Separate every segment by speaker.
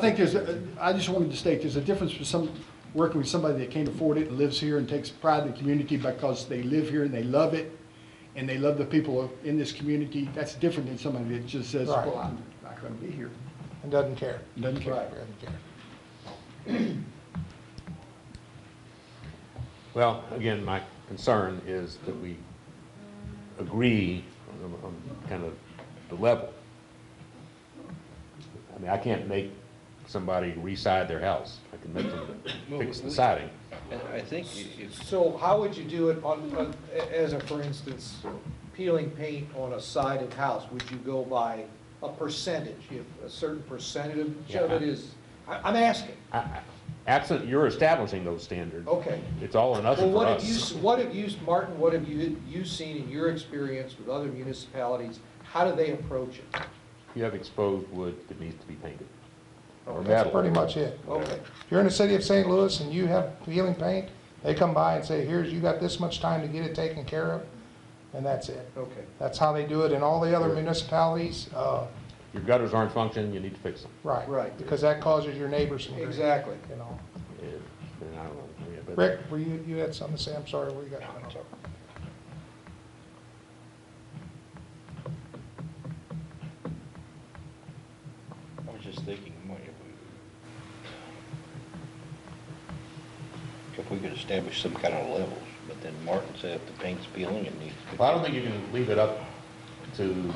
Speaker 1: I think there's, a- I just wanted to state, there's a difference with some, working with somebody that can't afford it and lives here and takes pride in the community because they live here and they love it, and they love the people in this community. That's different than somebody that just says,
Speaker 2: Right.
Speaker 1: well, I'm not gonna be here.
Speaker 2: and doesn't care.
Speaker 1: Doesn't care.
Speaker 2: Right, Doesn't care.
Speaker 3: Well, again, my concern is that we agree on, on kind of the level. I mean, I can't make somebody re-side their house. I can make them fix the siding.
Speaker 4: I- I think i- if,
Speaker 5: So how would you do it on, on- a- as a, for instance, peeling paint on a sided house? Would you go by a percentage, if a certain percentage of it is, I, I'm asking,
Speaker 3: I- I- Absent, you're establishing those standards.
Speaker 5: okay.
Speaker 3: It's all or
Speaker 5: Well,
Speaker 3: nothing for
Speaker 5: what have you, s-
Speaker 3: us.
Speaker 5: what have you, Martin, what have you, you seen in your experience with other municipalities? How do they approach it?
Speaker 3: You have exposed wood that needs to be painted. Or
Speaker 2: That's
Speaker 3: metal.
Speaker 2: pretty much it.
Speaker 5: Okay,
Speaker 2: If you're in the city of St. Louis and you have peeling paint, they come by and say, here's, you got this much time to get it taken care of, and that's it.
Speaker 5: okay.
Speaker 2: That's how they do it in all the other municipalities, uh,
Speaker 3: Your gutters aren't functioning, you need to fix them.
Speaker 2: right.
Speaker 5: Right.
Speaker 2: Because that causes your neighbors some grief.
Speaker 5: Exactly.
Speaker 2: You know.
Speaker 3: And and I don't know. yeah, but-
Speaker 2: Rick, were you, you had something to say? I'm sorry, where you got?
Speaker 4: I was just thinking, what if we, if we could establish some kind of levels, but then Martin said if the paint's peeling, it needs to be.
Speaker 3: Well, I don't think you can leave it up to the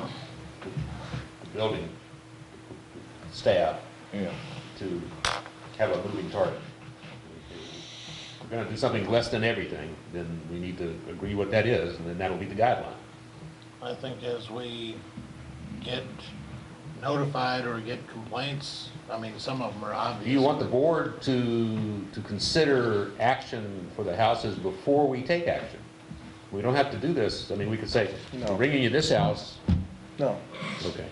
Speaker 3: building staff
Speaker 4: Yeah,
Speaker 3: to have a moving target. If we're gonna do something less than everything, then we need to agree what that is, and then that'll be the guideline.
Speaker 6: I think as we get notified or get complaints, I mean, some of them are obvious.
Speaker 3: Do you want the board to, to consider action for the houses before we take action? We don't have to do this, I mean, we could say,
Speaker 7: No.
Speaker 3: we're bringing you this house,
Speaker 7: No,
Speaker 3: okay.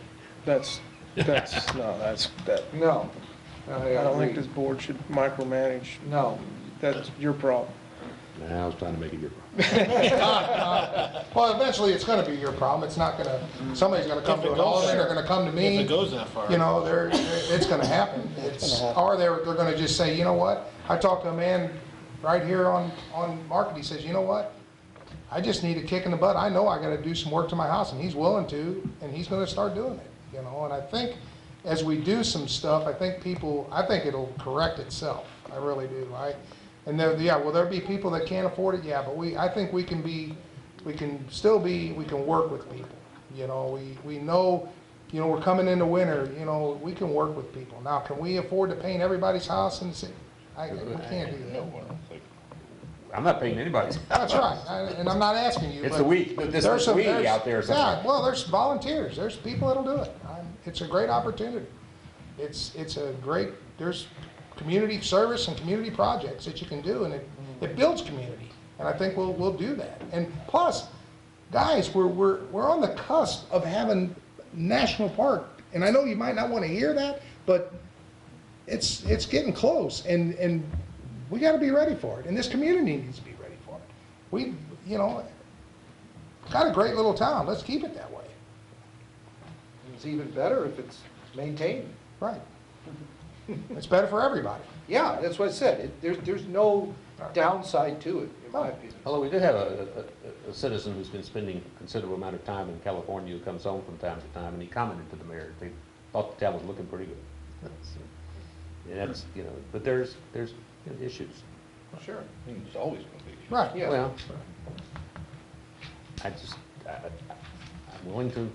Speaker 7: that's, that's, no, that's, that,
Speaker 5: No.
Speaker 7: I don't think
Speaker 5: agree.
Speaker 7: this board should micromanage.
Speaker 5: No,
Speaker 7: That's your problem.
Speaker 3: Now, I was trying to make it your problem.
Speaker 2: Well, eventually, it's gonna be your problem. It's not gonna, somebody's gonna come
Speaker 6: If it
Speaker 2: to an
Speaker 6: goes
Speaker 2: alderman, they're
Speaker 6: there.
Speaker 2: gonna come to me.
Speaker 6: If it goes that far.
Speaker 2: you know, they're, it's gonna happen. It's, or they're, they're gonna just say, you know what? I talked to a man right here on, on Market, he says, you know what? I just need a kick in the butt. I know I gotta do some work to my house, and he's willing to, and he's gonna start doing it, you know? And I think as we do some stuff, I think people, I think it'll correct itself. I really do. I, and there, yeah, will there be people that can't afford it? Yeah, but we, I think we can be, we can still be, we can work with people. You know, we, we know, you know, we're coming into winter, you know, we can work with people. Now, can we afford to paint everybody's house and say, I, we can't do
Speaker 4: no,
Speaker 2: that.
Speaker 4: I don't think.
Speaker 3: I'm not paying anybody's
Speaker 2: That's right, I- and I'm not asking you.
Speaker 3: It's
Speaker 2: but
Speaker 3: the we- but this
Speaker 2: there's
Speaker 3: is
Speaker 2: some-
Speaker 3: we
Speaker 2: there's-
Speaker 3: out there somewhere.
Speaker 2: Yeah, well, there's volunteers, there's people that'll do it. I'm- It's a great opportunity. It's, it's a great, there's community service and community projects that you can do, and it, it builds community. And I think we'll, we'll do that. And plus, guys, we're, we're, we're on the cusp of having national park. And I know you might not want to hear that, but it's, it's getting close, and, and we gotta be ready for it, and this community needs to be ready for it. We, you know, got a great little town, let's keep it that way.
Speaker 5: it's even better if it's maintained.
Speaker 2: Right. It's better for everybody.
Speaker 5: Yeah, that's what I said, It- there's, there's no downside to it, in my opinion.
Speaker 3: Although we did have a, a- a citizen who's been spending considerable amount of time in California, who comes home from time to time, and he commented to the mayor, they thought the town was looking pretty good. That's- And that's, you know, but there's, there's you know, issues.
Speaker 5: Sure.
Speaker 4: I mean, There's always gonna be.
Speaker 2: Right.
Speaker 5: Yeah.
Speaker 3: Well, I just, I, I- I'm willing to,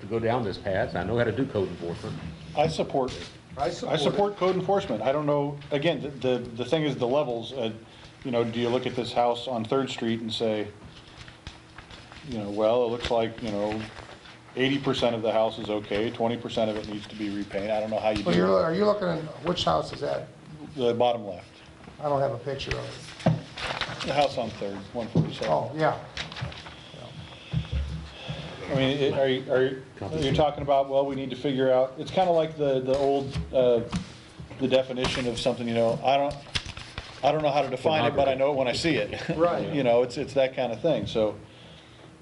Speaker 3: to go down this path, I know how to do code enforcement.
Speaker 8: I support,
Speaker 5: I
Speaker 8: I
Speaker 5: support
Speaker 8: support code enforcement. I don't know, again, the- the, the thing is the levels. uh, You know, do you look at this house on Third Street and say, you know, well, it looks like, you know, eighty percent of the house is okay, twenty percent of it needs to be repainted. I don't know how you
Speaker 2: Well, you're,
Speaker 8: do
Speaker 2: are you looking at, which house is that?
Speaker 8: it. The bottom left,
Speaker 2: I don't have a picture of it.
Speaker 8: the house on Third, one forty-seven.
Speaker 2: Oh, yeah,
Speaker 8: I mean, it- are you, are you, you're talking about, well, we need to figure out, it's kind of like the, the old, uh, the definition of something, you know, I don't, I don't know how to define it, but I know it when I see it.
Speaker 5: Right.
Speaker 8: You know, it's, it's that kind of thing, so,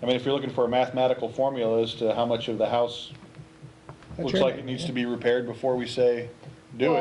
Speaker 8: I mean, if you're looking for a mathematical formula as to how much of the house
Speaker 2: That's
Speaker 8: looks
Speaker 2: your
Speaker 8: like
Speaker 2: name,
Speaker 8: it needs to be repaired before we say, do it.